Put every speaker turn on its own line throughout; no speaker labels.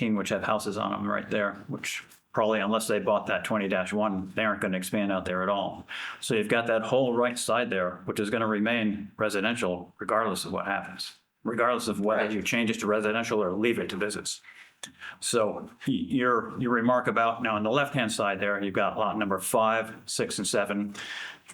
which have houses on them right there, which probably unless they bought that twenty one, they aren't going to expand out there at all. So you've got that whole right side there, which is going to remain residential regardless of what happens, regardless of whether you change it to residential or leave it to business. So y- your, your remark about now on the left-hand side there, you've got lot number five, six, and seven.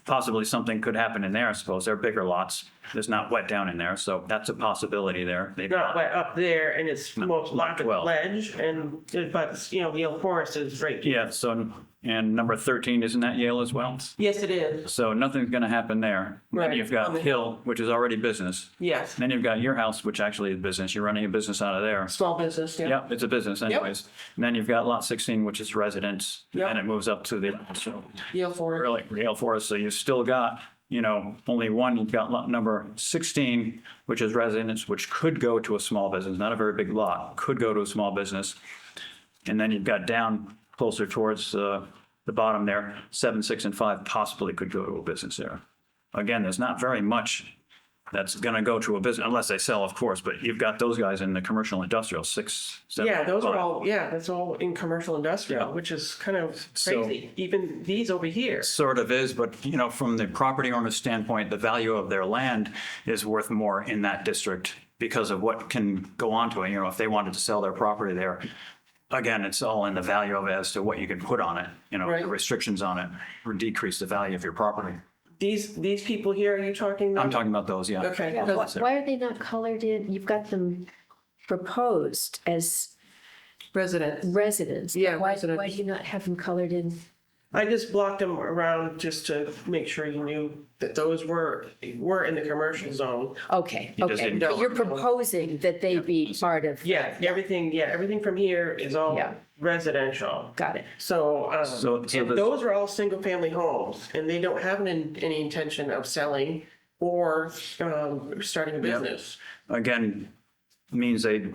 Possibly something could happen in there, I suppose. They're bigger lots. There's not wet down in there, so that's a possibility there. They've
not
got-
way up there and it's more
lot
like a
12.
ledge and, but, you know, Yale Forest is right.
Yeah, so, and number 13, isn't that Yale as well?
Yes, it is.
So nothing's going to happen there. Then
Right. Um,
you've got Hill, which is already business.
Yes.
Then you've got your house, which actually is business. You're running a business out of there.
Small business, yeah.
Yep, it's a business anyways. And then you've got lot 16, which is residence.
Yep.
And it moves up to the, so
Yale Forest.
really real for us. So you've still got, you know, only one, you've got lot number 16, which is residence, which could go to a small business, not a very big lot, could go to a small business. And then you've got down closer towards uh, the bottom there, seven, six, and five possibly could go to a business there. Again, there's not very much that's going to go to a business, unless they sell, of course, but you've got those guys in the commercial industrial, six, seven.
Yeah, those are
five.
all, yeah, that's all in commercial industrial,
Yeah.
which is kind of
So-
crazy. Even these over here.
Sort of is, but you know, from the property owner's standpoint, the value of their land is worth more in that district because of what can go onto it. You know, if they wanted to sell their property there, again, it's all in the value of it as to what you can put on it, you know,
Right.
the restrictions on it or decrease the value of your property.
These, these people here, are you talking?
I'm
about?
talking about those, yeah.
Okay.
Yeah,
because-
wh- Why are they not colored in? You've got them proposed as
resident.
residents. but
Yeah,
Why,
residents.
why do you not have them colored in?
I just blocked them around just to make sure you knew that those were, were in the commercial zone.
Okay,
just
okay.
didn't
But
color
You're
them in.
proposing that they be part of.
Yeah, everything, yeah, everything from here is all
Yeah.
residential.
Got it.
So, um,
So- so
and
this-
those are all single-family homes, and they don't have an, any intention of selling or um, starting a business.
Again, means they,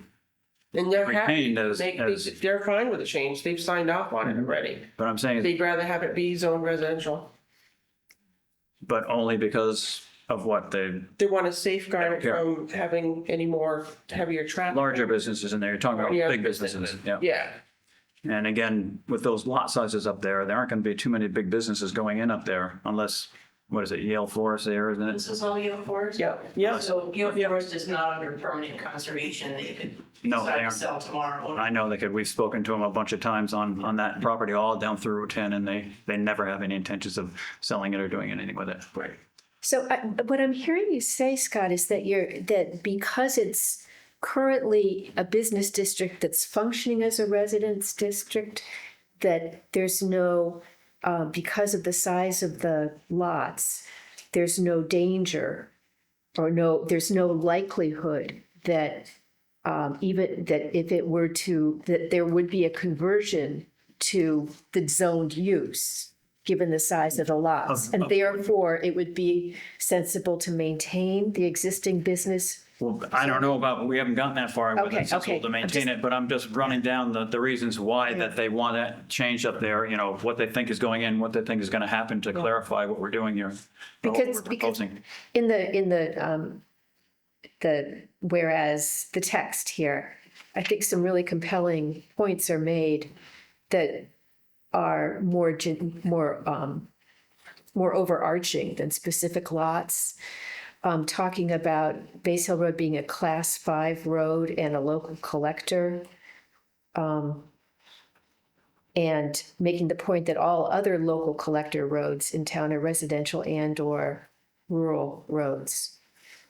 And they're happy.
Retained as-
They- they-
as- Mm-hmm.
They're fine with the change. They've signed off on it already.
but I'm saying,
They'd rather have it be zone residential.
but only because of what the
They want to safeguard it
Yeah.
from having any more heavier traffic.
larger businesses in there, you're talking about
Yeah.
big businesses, yeah.
Yeah,
And again, with those lot sizes up there, there aren't going to be too many big businesses going in up there unless, what is it, Yale Forest there, isn't it?
This is all Yale Forest?
yeah, yeah.
So Yale Forest is not under permanent conservation. They could
No, they
decide to
aren't.
sell tomorrow.
I know they could, we've spoken to them a bunch of times on, on that property all down through Route 10 and they, they never have any intentions of selling it or doing anything with it. Right.
So I, what I'm hearing you say, Scott, is that you're, that because it's currently a business district that's functioning as a residence district, that there's no, uh, because of the size of the lots, there's no danger or no, there's no likelihood that um, even, that if it were to, that there would be a conversion to the zoned use, given the size of the lots. And therefore, it would be sensible to maintain the existing business.
Well, I don't know about, we haven't gotten that far with
Okay,
it since
okay.
we'll maintain it, but I'm just running down the, the reasons why that they want that change up there, you know, what they think is going in, what they think is going to happen to clarify what we're doing here. or what
Because-
we're
because-
proposing.
In the, in the, um, the, whereas the text here, I think some really compelling points are made that are more, gen- more, um, more overarching than specific lots. Um, talking about Base Hill Road being a class five road and a local collector. Um, and making the point that all other local collector roads in town are residential and or rural roads.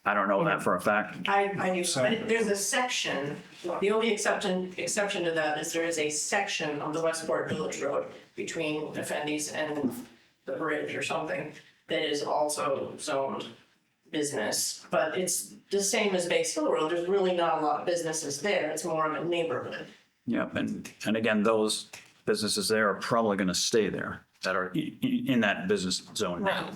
I don't know that for a fact.
I, I knew, but there's a section, the only exception, exception to that is there is a section of the Westport Village Road between Effendi's and the bridge or something that is also zoned business, but it's the same as Base Hill Road. There's really not a lot of businesses there. It's more of a neighborhood.
Yep, and, and again, those businesses there are probably going to stay there that are i- i- in that business zone now.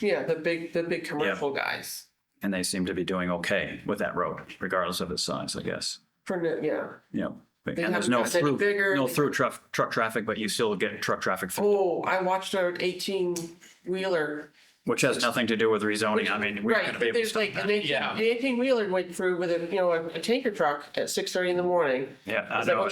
Yeah, the big, the big commercial guys.
And they seem to be doing okay with that road, regardless of its size, I guess.
For, the- yeah.
Yep. And
They
there's
haven't
no
gotten any
through,
bigger.
no through truck, truck traffic, but you still get truck traffic, through,
Oh, I watched our eighteen wheeler.
which has nothing to do with rezoning. I mean, we're going to
Right,
be able
there's
to.
like, an eighteen wheeler went through with a, you know, a a tanker truck at six thirty in the morning.
Yeah, I
Is that
know.
what